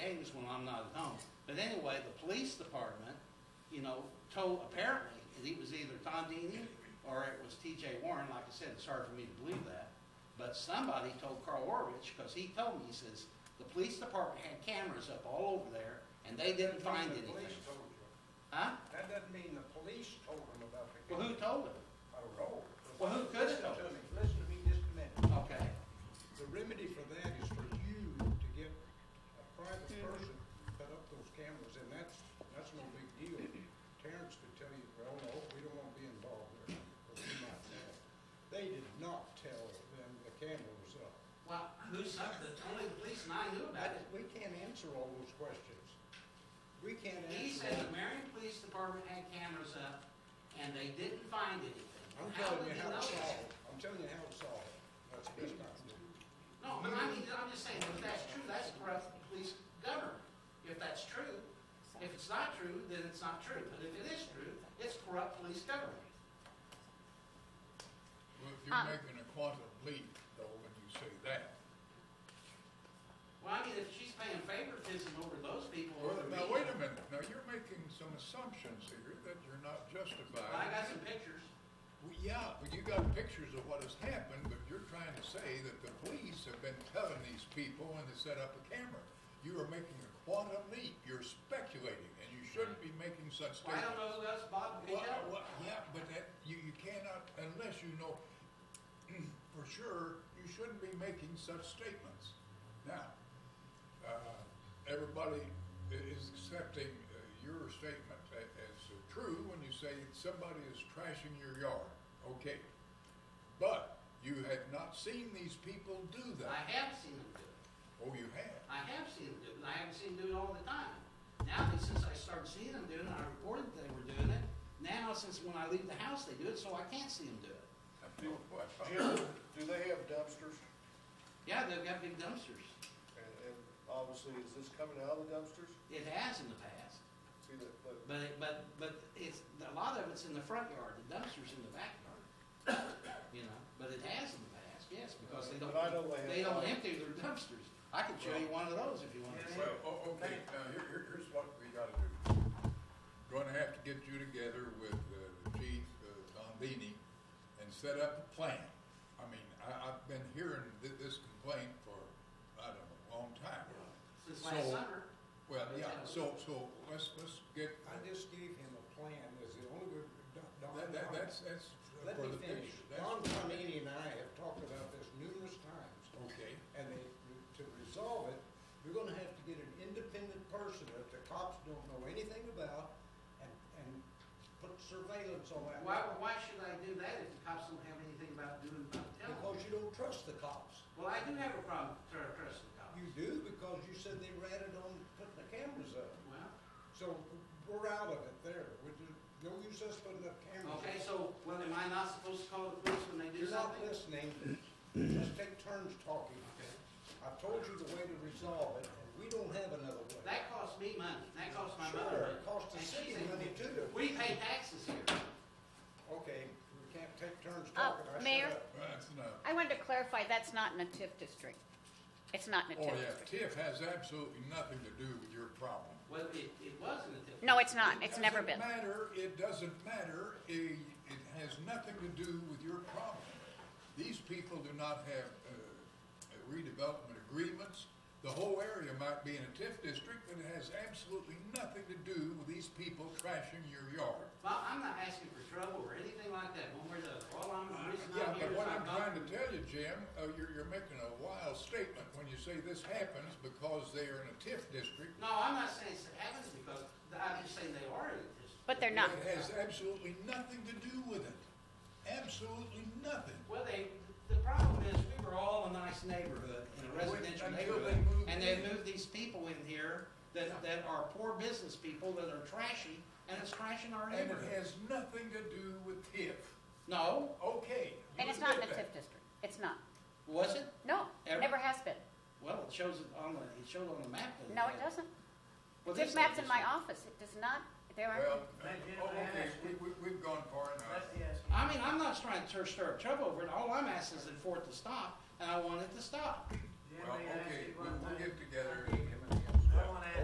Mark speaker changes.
Speaker 1: things when I'm not at home. But anyway, the police department, you know, told, apparently, it was either Tom Deeney or it was TJ Warren. Like I said, it's hard for me to believe that. But somebody told Carl Orvich, because he told me, he says, the police department had cameras up all over there, and they didn't find
Speaker 2: The police
Speaker 1: anything.
Speaker 2: told you.
Speaker 1: Huh?
Speaker 2: That doesn't mean the police told them about the.
Speaker 1: Well, who told him?
Speaker 2: I don't know.
Speaker 1: Well, who could have told
Speaker 2: Listen
Speaker 1: them?
Speaker 2: to me, listen to me just a minute.
Speaker 1: Okay.
Speaker 2: The remedy for that is for you to get a private
Speaker 1: Hmm.
Speaker 2: person to put up those cameras, and that's, that's no big deal. Terrence could tell you, well, no, we don't want to be involved there, but we might tell. They did not tell them the camera was up.
Speaker 1: Well, who sucked it? Only the police and I knew about it.
Speaker 2: We can't answer all those questions. We can't answer.
Speaker 1: He said the
Speaker 2: all-
Speaker 1: Marion Police Department had cameras up, and they didn't find anything.
Speaker 2: I'm
Speaker 1: How
Speaker 2: telling
Speaker 1: did he
Speaker 2: you how
Speaker 1: know
Speaker 2: it's
Speaker 1: that?
Speaker 2: solved. I'm telling you how it's solved. That's the best I can do.
Speaker 1: No, but I mean, I'm just saying, if that's true, that's corrupt police government. If that's true, if it's not true, then it's not true. But if it is true, it's corrupt police government.
Speaker 3: Well, if you're
Speaker 4: Um,
Speaker 3: making a quantum leap, though, when you say that.
Speaker 1: Well, I mean, if she's paying favoritism over those people. over me-
Speaker 3: Now, wait a minute, now you're making some assumptions here that you're not
Speaker 1: Well, I got some
Speaker 3: justified.
Speaker 1: pictures.
Speaker 3: Well, Yeah, but you got pictures of what has happened, but you're trying to say that the police have been telling these people when they set up a camera. You are making a quantum leap, you're speculating, and you shouldn't be making such
Speaker 1: Well, I don't
Speaker 3: statements.
Speaker 1: know who else Bob could
Speaker 3: Well,
Speaker 1: help.
Speaker 3: well, yeah, but that, you, you cannot, unless you know for sure, you shouldn't be making such statements. Now, uh, everybody i- is accepting uh, your statement a- as true when you say somebody is trashing your yard, okay? But you have not seen these people do
Speaker 1: I
Speaker 3: that.
Speaker 1: have seen them do it.
Speaker 3: Oh, you have?
Speaker 1: I have seen them do it, and I haven't seen them do it all the time. Now, since I started seeing them doing it, I reported that they were doing it. Now, since when I leave the house, they do it, so I can't see them do it.
Speaker 3: I know what-
Speaker 5: Jim, do they have dumpsters?
Speaker 1: Yeah, they've got big dumpsters.
Speaker 5: And, and obviously, is this coming out of the dumpsters?
Speaker 1: It has in the past,
Speaker 5: See, that, but
Speaker 1: but, it- but, but it's, a lot of it's in the front yard, the dumpster's in the backyard. You know, but it has in the past, yes, because they don't,
Speaker 5: But I know they have-
Speaker 1: they don't empty their dumpsters. I could show you one of those if you want to see.
Speaker 3: Well, o- oh, okay, now, here, here- here's what we gotta do. Gonna have to get you together with uh, the Chief, uh, Don Beatty, and set up a plan. I mean, I, I've been hearing thi- this complaint for, I don't know, a long time.
Speaker 1: Since last
Speaker 3: So-
Speaker 1: summer,
Speaker 3: Well, yeah, so, so let's, let's get,
Speaker 2: I just gave him a plan, is the only way. Don- Don-
Speaker 3: that, that, that's, that's
Speaker 2: Let
Speaker 3: for
Speaker 2: me
Speaker 3: the
Speaker 2: finish.
Speaker 3: picture.
Speaker 2: Don
Speaker 3: That's-
Speaker 2: Tomini and I have talked about this numerous times,
Speaker 3: Okay,
Speaker 2: and they, to resolve it, you're gonna have to get an independent person that the cops don't know anything about, and, and put surveillance on that.
Speaker 1: why, why should I do that if the cops don't have anything about doing, about telling? me?
Speaker 2: Because you don't trust the cops.
Speaker 1: Well, I do have a problem with tr- trusting the cops.
Speaker 2: You do, because you said they ratted on putting the cameras up.
Speaker 1: Well,
Speaker 2: So we're out of it there. We're just, no use us putting up cameras.
Speaker 1: okay, so, well, am I not supposed to call the police when they do
Speaker 2: You're not
Speaker 1: something?
Speaker 2: listening. Let's take turns talking.
Speaker 1: Okay.
Speaker 2: I've told you the way to resolve it, and we don't have another way.
Speaker 1: That costs me money, that costs my
Speaker 2: Sure,
Speaker 1: mother money.
Speaker 2: it costs the
Speaker 1: And she
Speaker 2: city
Speaker 1: said,
Speaker 2: money too.
Speaker 1: We pay taxes here.
Speaker 2: Okay, we can't take turns
Speaker 4: Uh,
Speaker 2: talking. I shut
Speaker 4: Mayor?
Speaker 2: up.
Speaker 3: well, that's enough.
Speaker 4: I wanted to clarify, that's not in a TIF district. It's not in a
Speaker 3: Oh,
Speaker 4: TIF
Speaker 3: yeah,
Speaker 4: district.
Speaker 3: TIF has absolutely nothing to do with your problem.
Speaker 1: Well, it, it wasn't until.
Speaker 4: No, it's not. It's never been.
Speaker 3: It doesn't matter, it doesn't matter, it, it has nothing to do with your problem. These people do not have uh, redevelopment agreements. The whole area might be in a TIF district, and it has absolutely nothing to do with these people trashing your yard.
Speaker 1: Well, I'm not asking for trouble or anything like that, one way or the other. All I'm, the reason
Speaker 3: Yeah,
Speaker 1: I'm here
Speaker 3: but
Speaker 1: is
Speaker 3: what
Speaker 1: I
Speaker 3: I'm
Speaker 1: got-
Speaker 3: trying to tell you, Jim, uh, you're, you're making a wild statement when you say this happens because they are in a TIF district.
Speaker 1: No, I'm not saying it happens because, I'm just saying they are in this.
Speaker 4: But they're not.
Speaker 3: It has absolutely nothing to do with it. Absolutely nothing.
Speaker 1: Well, they, the problem is, we were all a nice neighborhood, in a residential
Speaker 3: Until they
Speaker 1: neighborhood,
Speaker 3: moved
Speaker 1: and they
Speaker 3: in.
Speaker 1: moved these people in here that, that are poor business people that are trashy, and it's trashing our
Speaker 3: And it
Speaker 1: neighborhood.
Speaker 3: has nothing to do with TIF.
Speaker 1: No,
Speaker 3: Okay. you
Speaker 4: And it's
Speaker 3: admit
Speaker 4: not in a
Speaker 3: that.
Speaker 4: TIF district. It's not.
Speaker 1: was it?
Speaker 4: No,
Speaker 1: Ever?
Speaker 4: never has been.
Speaker 1: Well, it shows it on the, it showed on the map. that
Speaker 4: No, it
Speaker 1: had-
Speaker 4: doesn't.
Speaker 1: Well,
Speaker 4: TIF
Speaker 1: this
Speaker 4: map's
Speaker 1: thing
Speaker 4: in my
Speaker 1: is-
Speaker 4: office. It does not, there
Speaker 3: Well,
Speaker 4: are,
Speaker 3: uh, okay, we, we, we've gone far enough.
Speaker 1: I mean, I'm not trying to stir up trouble over it. All I'm asking is for it to stop, and I want it to stop.
Speaker 3: Uh, Well, okay, we- we'll get together and